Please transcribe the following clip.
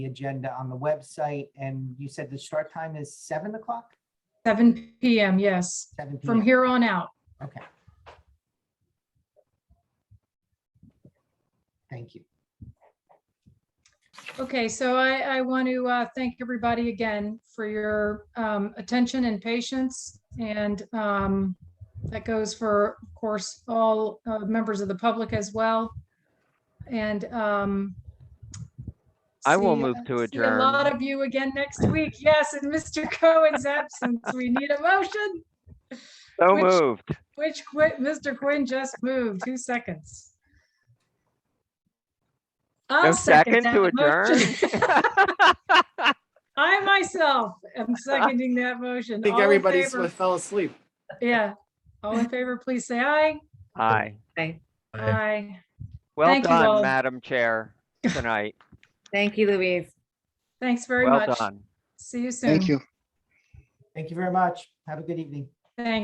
the agenda on the website, and you said the start time is seven o'clock? Seven PM, yes, Seven from PM, here on out. okay. Thank you. Okay, so I, I want to uh, thank everybody again for your um, attention and patience. And um, that goes for, of course, all uh, members of the public as well. And um, I will see- move to see A lot adjourn. of you again next week. Yes, in Mr. Cohen's absence, we need a motion, So which- moved. which Qui- Mr. Quinn just moved. Two seconds. No I'll second to that motion. adjourn. I myself am seconding that motion. I think All in everybody favor- s- fell asleep. Yeah. All in favor, please say aye. Aye. Aye. Well Thank you all. done, Madam Chair, tonight. Thank you, Louise. Thanks very Well much. done. See you soon. Thank you. Thank you very much. Have a good evening.